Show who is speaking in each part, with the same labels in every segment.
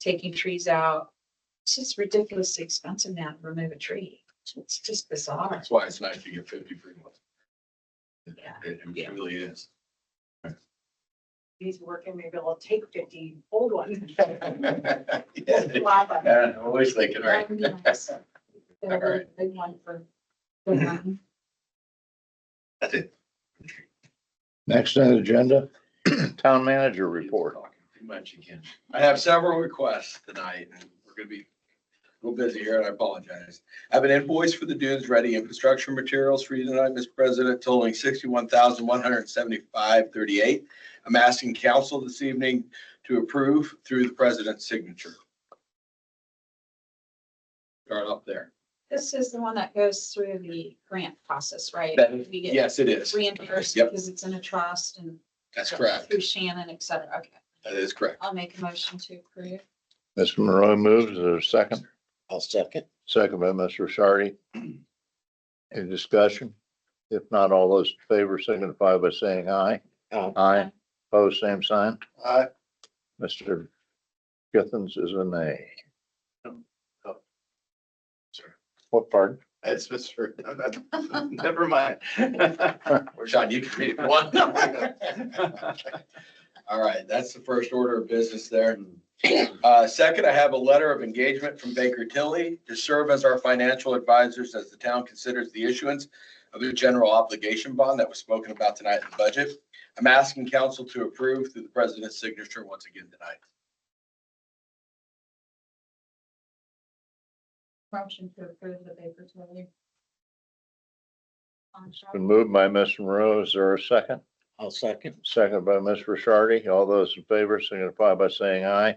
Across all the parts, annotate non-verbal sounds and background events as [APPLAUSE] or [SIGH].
Speaker 1: taking trees out. It's just ridiculously expensive now to remove a tree. It's just bizarre.
Speaker 2: That's why it's nice to get fifty free ones. It-
Speaker 1: Yeah.
Speaker 2: It it really is.
Speaker 3: He's working, maybe I'll take fifty old ones.
Speaker 2: [LAUGHS] Yeah,
Speaker 3: Slap 'em.
Speaker 2: I wish they could, right?
Speaker 1: That would be
Speaker 2: [LAUGHS]
Speaker 1: nice. They're a
Speaker 2: Alright.
Speaker 1: Big one
Speaker 2: [LAUGHS]
Speaker 1: for. the mountain.
Speaker 2: That's it.
Speaker 4: Next on the agenda, town manager report.
Speaker 2: Talking Too much again. I have several requests tonight, and we're gonna be a little busy here, and I apologize. I have an invoice for the dunes ready and construction materials for you tonight, Mr. President, totaling sixty-one thousand, one hundred and seventy-five, thirty-eight. I'm asking council this evening to approve through the president's signature. Start up there.
Speaker 1: This is the one that goes through the grant process, right?
Speaker 2: That-
Speaker 1: We get
Speaker 2: Yes, it is.
Speaker 1: Reimbursed
Speaker 2: Yep.
Speaker 1: because it's in a trust and.
Speaker 2: That's correct.
Speaker 1: Through Shannon, et cetera. Okay,
Speaker 2: That is correct.
Speaker 1: I'll make a motion to approve.
Speaker 4: Ms. Monroe moves, is there a second?
Speaker 5: I'll second.
Speaker 4: Second by Mr. Shardy. Any discussion? If not, all those in favor signify by saying aye.
Speaker 5: Aye.
Speaker 4: Aye. Pose same sign.
Speaker 2: Aye.
Speaker 4: Mr. Githens is a nay. What part?
Speaker 2: It's Mr. [LAUGHS] Never mind. Sean, you can read it. One. [LAUGHS] All right, that's the first order of business there. Uh, second, I have a letter of engagement from Baker Tilly to serve as our financial advisors as the town considers the issuance of a general obligation bond that was spoken about tonight in the budget. I'm asking council to approve through the president's signature once again tonight.
Speaker 1: Motion to approve the Baker Tilly. contract.
Speaker 4: Been moved by Ms. Monroe, is there a second?
Speaker 5: I'll second.
Speaker 4: Second by Mr. Shardy. All those in favor signify by saying aye.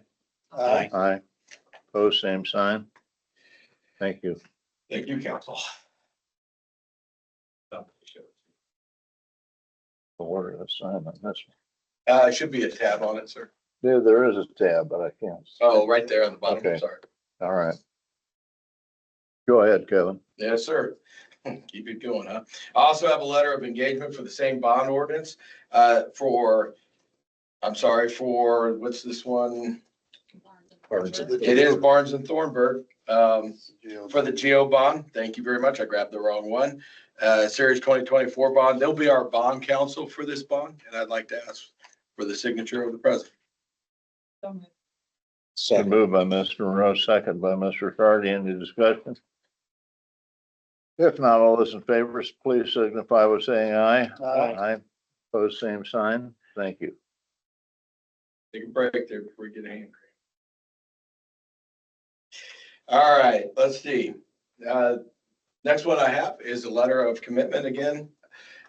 Speaker 5: Aye.
Speaker 4: Aye. Pose same sign. Thank you.
Speaker 2: Thank you, council.
Speaker 4: Order of assignment, that's
Speaker 2: Uh, it should be a tab on it, sir.
Speaker 4: There, there is a tab, but I can't. see.
Speaker 2: Oh, right there on the bottom,
Speaker 4: Okay.
Speaker 2: sorry.
Speaker 4: All right. Go ahead, Kevin.
Speaker 2: Yes, sir. [LAUGHS] Keep it going, huh? I also have a letter of engagement for the same bond ordinance, uh, for, I'm sorry, for, what's this one?
Speaker 5: Barnes and-
Speaker 2: It is Barnes and Thornburg, um, for the Geo bond. Thank you very much. I grabbed the wrong one. Uh, Series twenty twenty-four bond. They'll be our bond counsel for this bond, and I'd like to ask for the signature of the president.
Speaker 1: So moved.
Speaker 4: Been
Speaker 5: Second.
Speaker 4: moved by Mr. Monroe, second by Mr. Hardy. Any discussion? If not, all those in favor, please signify by saying aye.
Speaker 5: Aye.
Speaker 4: Aye. Pose same sign. Thank you.
Speaker 2: Take a break there before we get angry. All right, let's see. Uh, Next one I have is a letter of commitment again,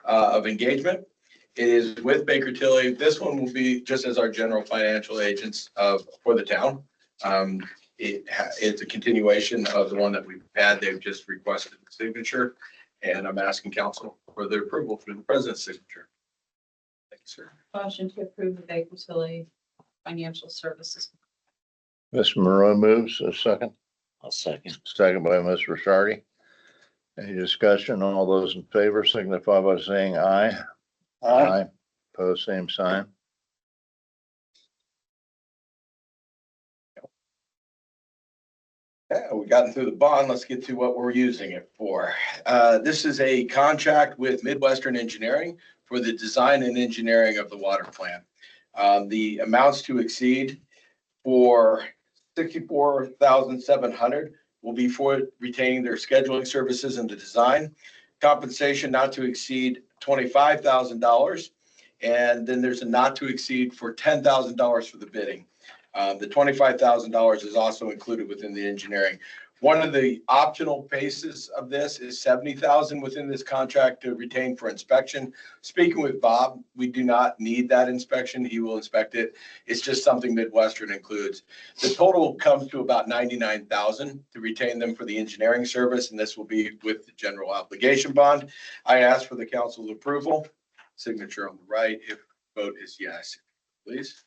Speaker 2: uh, of engagement. It is with Baker Tilly. This one will be just as our general financial agents of, for the town. Um, It, ha- it's a continuation of the one that we've had. They've just requested the signature. And I'm asking council for their approval for the president's signature. Thank you, sir.
Speaker 1: Motion to approve the Baker Tilly Financial Services.
Speaker 4: Mr. Monroe moves, a second,
Speaker 5: I'll second.
Speaker 4: second by Mr. Hardy. Any discussion? All those in favor signify by saying aye. Pose same sign.
Speaker 2: Yeah, we gotten through the bond. Let's get to what we're using it for. Uh, This is a contract with Midwestern Engineering for the design and engineering of the water plant. Um, The amounts to exceed for sixty-four thousand seven hundred will be for retaining their scheduling services and the design. Compensation not to exceed twenty-five thousand dollars. And then there's a not to exceed for ten thousand dollars for the bidding. Uh, The twenty-five thousand dollars is also included within the engineering. One of the optional paces of this is seventy thousand within this contract to retain for inspection. Speaking with Bob, we do not need that inspection. He will inspect it. It's just something Midwestern includes. The total comes to about ninety-nine thousand to retain them for the engineering service, and this will be with the general obligation bond. I ask for the council's approval. Signature on the right if vote is yes, please.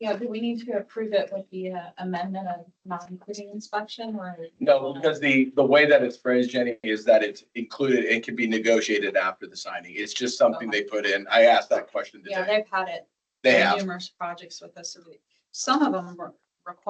Speaker 1: Yeah, do we need to approve it with the uh, amendment of not including inspection or?
Speaker 2: No, because the, the way that it's phrased, Jenny, is that it's included and can be negotiated after the signing. It's just something they put in. I asked that question
Speaker 1: Yeah,
Speaker 2: today.
Speaker 1: they've had it.
Speaker 2: They
Speaker 1: on
Speaker 2: have.
Speaker 1: Numerous projects with us. Some of them were-